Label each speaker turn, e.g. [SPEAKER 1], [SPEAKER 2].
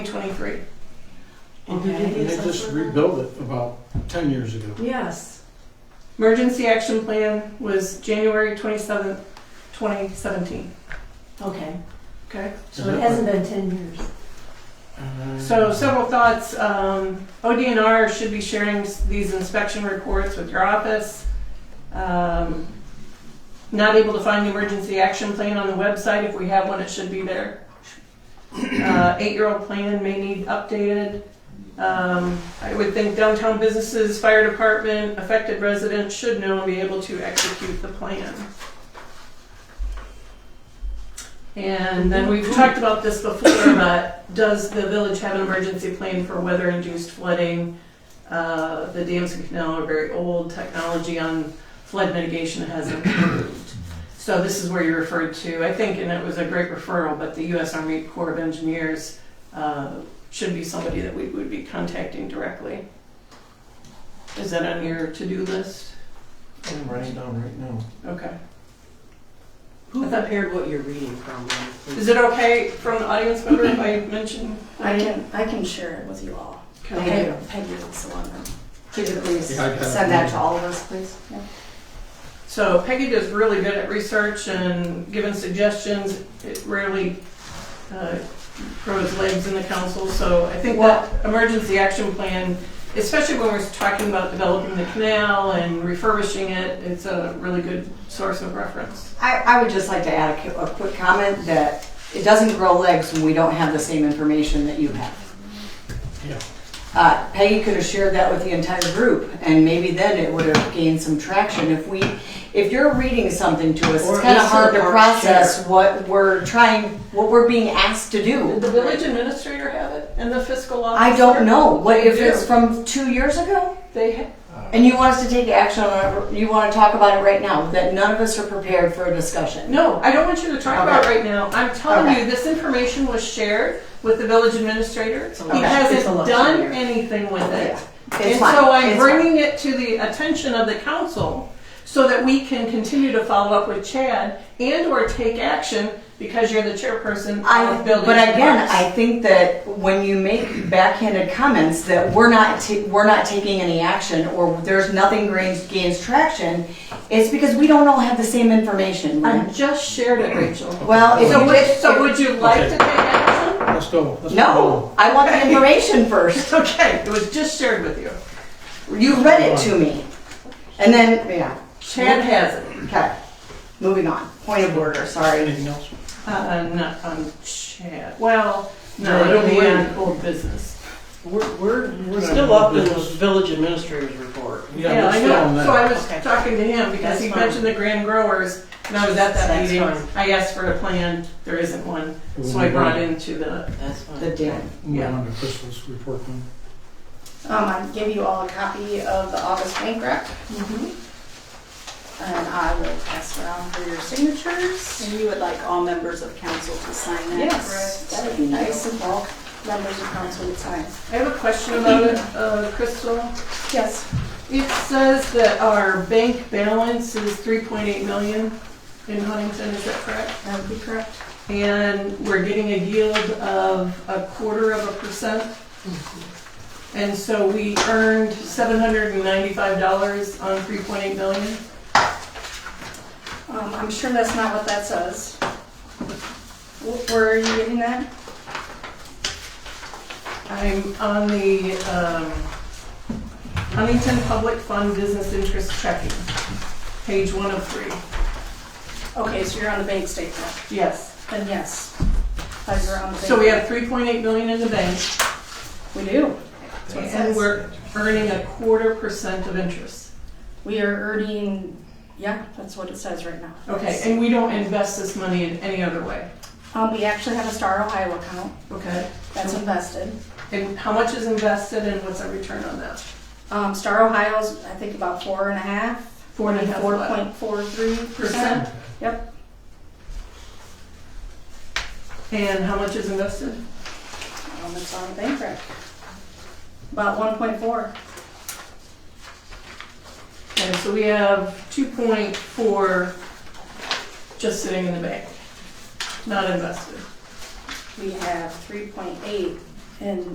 [SPEAKER 1] 23.
[SPEAKER 2] And they did-
[SPEAKER 3] Okay.
[SPEAKER 2] and they just rebuilt it about ten years ago.
[SPEAKER 3] Yes.
[SPEAKER 1] Emergency action plan was January 27th, 2017.
[SPEAKER 3] Okay.
[SPEAKER 1] Okay.
[SPEAKER 3] So it hasn't been ten years.
[SPEAKER 2] uh,
[SPEAKER 1] So several thoughts. Um, ODNR should be sharing s- these inspection reports with your office. Um, not able to find the emergency action plan on the website. If we have one, it should be there. Uh, eight-year-old plan may need updated. Um, I would think downtown businesses, fire department, affected residents should know and be able to execute the plan. And then we've talked about this before, but does the village have an emergency plan for weather-induced flooding? Uh, the dams and canal are very old, technology on flood mitigation has improved. So this is where you referred to, I think, and it was a great referral, but the US Army Corps of Engineers uh, should be somebody that we would be contacting directly. Is that on your to-do list?
[SPEAKER 2] I'm writing down right now.
[SPEAKER 1] Okay.
[SPEAKER 4] Who prepared what you're reading from?
[SPEAKER 1] Is it okay from the audience member if I mention?
[SPEAKER 5] I can, I can share it with you all.
[SPEAKER 1] Okay.
[SPEAKER 5] Peggy- Peggy is the one that, could you please
[SPEAKER 2] Yeah, I got it.
[SPEAKER 5] send that to all of us, please? Yeah.
[SPEAKER 1] So Peggy does really good at research and giving suggestions. It rarely uh, grows legs in the council, so I think that emergency action plan, especially when we're talking about developing the canal and refurbishing it, it's a really good source of reference.
[SPEAKER 6] I, I would just like to add a, cu- a quick comment that it doesn't grow legs when we don't have the same information that you have.
[SPEAKER 2] Yeah.
[SPEAKER 6] Uh, Peggy could have shared that with the entire group, and maybe then it would have gained some traction. If we, if you're reading something to us,
[SPEAKER 4] Or
[SPEAKER 6] it's
[SPEAKER 4] at
[SPEAKER 6] kind of
[SPEAKER 4] least
[SPEAKER 6] hard to
[SPEAKER 4] a part
[SPEAKER 6] process what we're trying, what we're being asked to
[SPEAKER 1] Did
[SPEAKER 6] do.
[SPEAKER 1] the village administrator have it and the fiscal officer?
[SPEAKER 6] I don't know. What if
[SPEAKER 1] They do.
[SPEAKER 6] it's from two years ago?
[SPEAKER 1] They, ha-
[SPEAKER 6] And you want us to take action on it, you want to talk about it right now, that none of us are prepared for a discussion.
[SPEAKER 1] No, I don't want you to talk about it right now. I'm telling
[SPEAKER 6] Okay.
[SPEAKER 1] you, this information was shared with the village administrator. He
[SPEAKER 6] Okay.
[SPEAKER 1] hasn't
[SPEAKER 4] It's a lot
[SPEAKER 1] done
[SPEAKER 4] easier.
[SPEAKER 1] anything with it.
[SPEAKER 6] It's
[SPEAKER 1] And
[SPEAKER 6] fine.
[SPEAKER 1] so I'm
[SPEAKER 6] It's
[SPEAKER 1] bringing it to the attention of the council so that we can continue to follow up with Chad and or take action because you're the chairperson
[SPEAKER 6] I,
[SPEAKER 1] of building.
[SPEAKER 6] but again, I think that when you make backhanded comments that we're not, ta- we're not taking any action or there's nothing gains, gains traction, it's because we don't all have the same information.
[SPEAKER 1] I just shared it, Rachel.
[SPEAKER 6] Well, if
[SPEAKER 1] Um, So
[SPEAKER 6] you
[SPEAKER 1] would,
[SPEAKER 6] just,
[SPEAKER 1] so
[SPEAKER 6] if-
[SPEAKER 1] would you like to take action?
[SPEAKER 2] Let's go. Let's
[SPEAKER 6] no, I want the information first.
[SPEAKER 1] It's okay, it was just shared with you.
[SPEAKER 6] You read it to me. And then, yeah,
[SPEAKER 1] Chad has it.
[SPEAKER 6] okay, moving on. Point of order,
[SPEAKER 2] go.
[SPEAKER 6] sorry.
[SPEAKER 2] Anything else?
[SPEAKER 1] Uh, not on Chad, well,
[SPEAKER 2] No,
[SPEAKER 1] no,
[SPEAKER 2] I
[SPEAKER 1] it'll
[SPEAKER 2] don't
[SPEAKER 1] be
[SPEAKER 2] worry.
[SPEAKER 1] on old business.
[SPEAKER 4] We're, we're,
[SPEAKER 2] We're not
[SPEAKER 4] still up in the
[SPEAKER 2] business.
[SPEAKER 4] village administrator's report.
[SPEAKER 1] Yeah,
[SPEAKER 2] we're
[SPEAKER 1] I
[SPEAKER 2] still on
[SPEAKER 1] know,
[SPEAKER 2] that.
[SPEAKER 1] so I was
[SPEAKER 4] Okay.
[SPEAKER 1] talking to him because
[SPEAKER 4] That's
[SPEAKER 1] he
[SPEAKER 4] fine.
[SPEAKER 1] mentioned the grand growers and I was at that
[SPEAKER 4] That's
[SPEAKER 1] meeting.
[SPEAKER 4] fine.
[SPEAKER 1] I asked for a plan, there isn't one,
[SPEAKER 2] We'll
[SPEAKER 1] so I
[SPEAKER 2] move
[SPEAKER 1] brought
[SPEAKER 2] on.
[SPEAKER 1] into the,
[SPEAKER 4] That's fine.
[SPEAKER 6] The din.
[SPEAKER 2] Move
[SPEAKER 1] yeah.
[SPEAKER 2] on to Crystal's report then.
[SPEAKER 5] Um, I give you all a copy of the August bank rec,
[SPEAKER 4] Mm-hmm.
[SPEAKER 5] and I will pass around for your signatures.
[SPEAKER 7] And you would like all members of council to sign that?
[SPEAKER 5] That would be nice if all members of council would sign.
[SPEAKER 1] I have a question about it, uh, Crystal.
[SPEAKER 5] Yes.
[SPEAKER 1] It says that our bank balance is three point eight million in Huntington, is that correct?
[SPEAKER 5] That would be correct.
[SPEAKER 1] And we're getting a yield of a quarter of a percent. And so we earned seven hundred and ninety-five dollars on three point eight million.
[SPEAKER 5] Um, I'm sure that's not what that says. Wh- Where are you getting that?
[SPEAKER 1] I'm on the um, Huntington Public Fund Business Interest Checking, page one of three.
[SPEAKER 5] Okay, so you're on the bank statement,
[SPEAKER 1] Yes.
[SPEAKER 5] then yes. Thought you were on the bank.
[SPEAKER 1] So we have 3.8 million in the bank,
[SPEAKER 5] We do. That's what it
[SPEAKER 1] and
[SPEAKER 5] says.
[SPEAKER 1] we're earning a quarter percent of interest.
[SPEAKER 5] We are earning, yeah, that's what it says right now.
[SPEAKER 1] Okay, and we don't invest this money in any other way,
[SPEAKER 5] Um, we actually have a Star Ohio account
[SPEAKER 1] okay?
[SPEAKER 5] that's invested.
[SPEAKER 1] And how much is invested and what's our return on that?
[SPEAKER 5] Um, Star Ohio's, I think about four and a half,
[SPEAKER 1] Four and a half
[SPEAKER 5] four
[SPEAKER 1] what?
[SPEAKER 5] point four three
[SPEAKER 1] Percent?
[SPEAKER 5] percent. Yep.
[SPEAKER 1] And how much is invested?
[SPEAKER 5] Um, it's on the bank rec. About one point four.
[SPEAKER 1] Okay, so we have 2.4 just sitting in the bank, not invested.
[SPEAKER 5] We have three point eight And